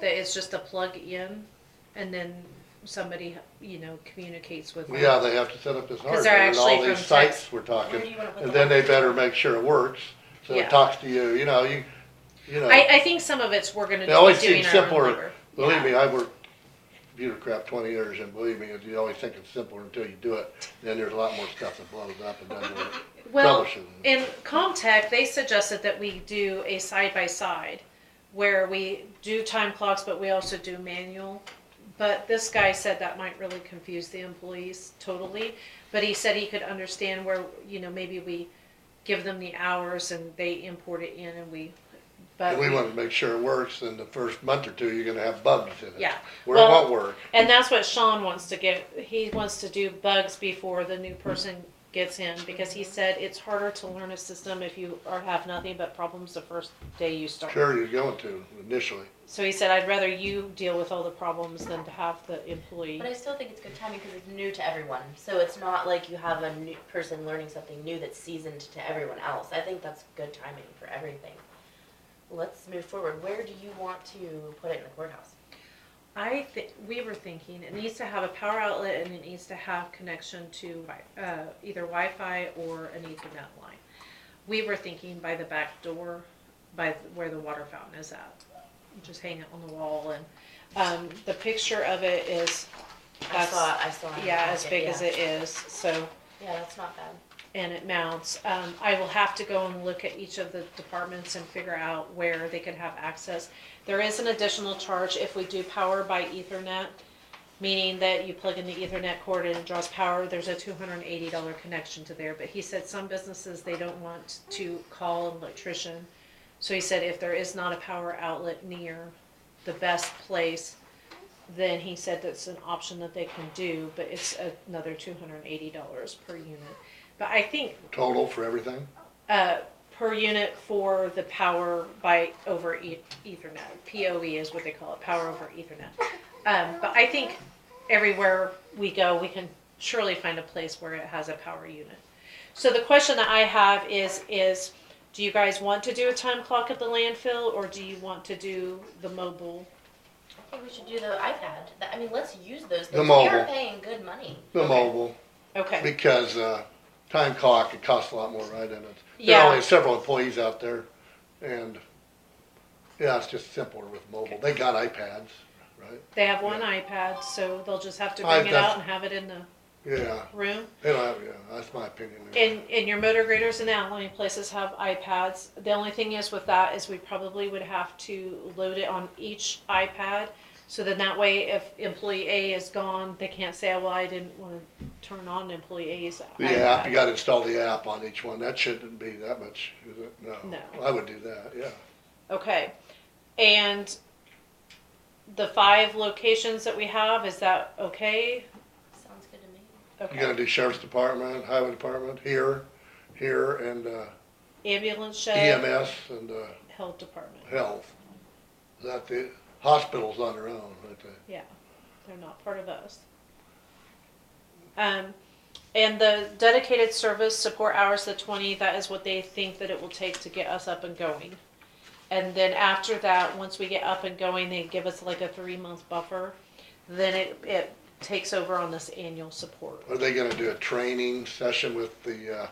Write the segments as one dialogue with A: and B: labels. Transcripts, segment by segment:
A: that it's just a plug in, and then somebody, you know, communicates with.
B: Yeah, they have to set up this hardware
A: they're
B: and all
A: actually
B: these
A: from
B: sites
A: Texas.
B: we're
C: Where do
B: talking,
C: you wanna put
B: and
C: the
B: then they
C: lights?
B: better make sure it works, so
A: Yeah.
B: it talks to you, you know, you, you know.
A: I, I think some of it's we're gonna
B: It uh, always
A: be doing
B: seems
A: our own
B: simpler.
A: labor.
B: Believe
A: Yeah.
B: me, I worked computer crap twenty years, and believe me, you always think it's simpler until you do it, then there's a lot more stuff that blows up and doesn't work.
A: Well,
B: Troubleshooting.
A: in Comtech, they suggested that we do a side by side where we do time clocks, but we also do manual. But this guy said that might really confuse the employees totally. But he said he could understand where, you know, maybe we give them the hours and they import it in and we, but.
B: And we want to make sure it works, and the first month or two, you're gonna have bugs in it.
A: Yeah.
B: Where it
A: Well-
B: won't work,
A: And that's what Sean wants to get. He wants to do bugs before the new person gets in because he said it's harder to learn a system if you are have nothing but problems the first day you start.
B: sure you're going to initially.
A: So he said, I'd rather you deal with all the problems than to have the employee.
C: But I still think it's good timing because it's new to everyone. So it's not like you have a new person learning something new that's seasoned to everyone else. I think that's good timing for everything. Let's move forward. Where do you want to put it in the courthouse?
A: I think, we were thinking it needs to have a power outlet and it needs to have connection to uh, either Wi-Fi or an ethernet line. We were thinking by the back door, by where the water fountain is at. Just hang it on the wall and, um, the picture of it is,
C: I
A: That's-
C: saw, I saw. it in
A: yeah,
C: the
A: as
C: packet,
A: big as
C: yeah.
A: it is, so,
C: Yeah, that's not bad.
A: and it mounts. Um, I will have to go and look at each of the departments and figure out where they could have access. There is an additional charge if we do power by ethernet, meaning that you plug in the ethernet cord and it draws power, there's a two hundred and eighty dollar connection to there, but he said some businesses, they don't want to call an electrician. So he said if there is not a power outlet near the best place, then he said that's an option that they can do, but it's another two hundred and eighty dollars per unit. But I think,
B: Total for everything?
A: uh, per unit for the power by over e- ethernet, POE is what they call it, power over ethernet. Um, but I think everywhere we go, we can surely find a place where it has a power unit. So the question that I have is, is do you guys want to do a time clock at the landfill or do you want to do the mobile?
C: I think we should do the iPad. That- I mean, let's use those
B: The
C: things. We are
B: mobile.
C: paying good money.
B: The
A: Okay.
B: mobile,
A: Okay,
B: because, uh, time clock, it costs a lot more, right, and it's, there
A: Yeah.
B: are only several employees out there, and, yeah, it's just simpler with mobile. They got iPads, right?
A: they have one iPad, so they'll just have to
B: I-
A: bring it
B: that's-
A: out and have it in the
B: Yeah,
A: room.
B: they don't have, yeah, that's my opinion.
A: And, and your motor graders and outlying places have iPads. The only thing is with that is we probably would have to load it on each iPad. So then that way, if employee A is gone, they can't say, well, I didn't want to turn on employee A's
B: The app, you
A: iPad.
B: gotta install the app on each one, that shouldn't be that much, is it? No.
A: No.
B: I would do that, yeah.
A: Okay. And the five locations that we have, is that okay?
C: Sounds good to me.
B: You gotta
A: Okay.
B: do sheriff's department, highway department, here, here, and, uh,
A: Ambulance shed,
B: EMS and, uh,
A: health department.
B: health. Is That the, hospital's on their own, right there.
A: Yeah, they're not part of us. Um, and the dedicated service support hours, the twenty, that is what they think that it will take to get us up and going. And then after that, once we get up and going, they give us like a three-month buffer, then it, it takes over on this annual support.
B: Are they gonna do a training session with the, uh,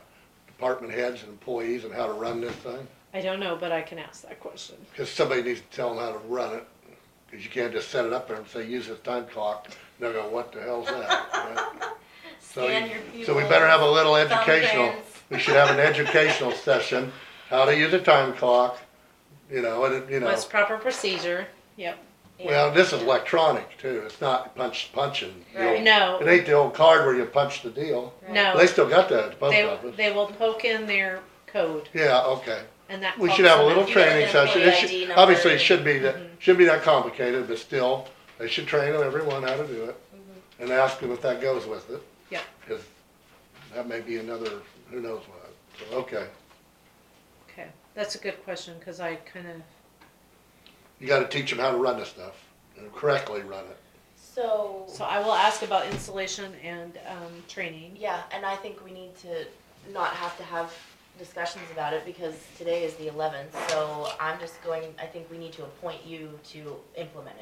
B: department heads and employees and how to run this thing?
A: I don't know, but I can ask that question.
B: Cause somebody needs to tell them how to run it, cause you can't just set it up there and say, use this time clock, and they'll go, what the hell's that, right? So,
C: Scan
B: you-
C: your
B: so we better have a little
C: pupils,
B: educational,
C: thumbprints.
B: we should have an educational session, how to use a time clock, you know, and, it- you know.
A: What's proper procedure? Yep.
C: Yeah.
B: Well, this is electronic too, it's not punch, punching. the
C: Right.
B: old-
A: No.
B: It ain't the old card where you punch the deal,
C: Right.
A: No.
B: they still got that at the post
A: They,
B: office.
A: they will poke in their code
B: Yeah, okay,
A: and that.
B: we should
A: helps
B: have
A: them
B: a little
A: out.
C: You just
B: training
C: get an
B: session,
C: employee
B: it should,
C: ID
B: obviously
C: number.
B: it should be that, shouldn't be that complicated, but still, they should train everyone how to do it. And ask them if that goes with it.
A: Yep.
B: Cause that may be another, who knows what, so, okay.
A: Okay, that's a good question, cause I kinda,
B: You gotta teach them how to run this stuff, and correctly run it.
C: So.
A: so I will ask about installation and, um, training.
C: Yeah, and I think we need to not have to have discussions about it because today is the eleventh, so I'm just going, I think we need to appoint you to implement it.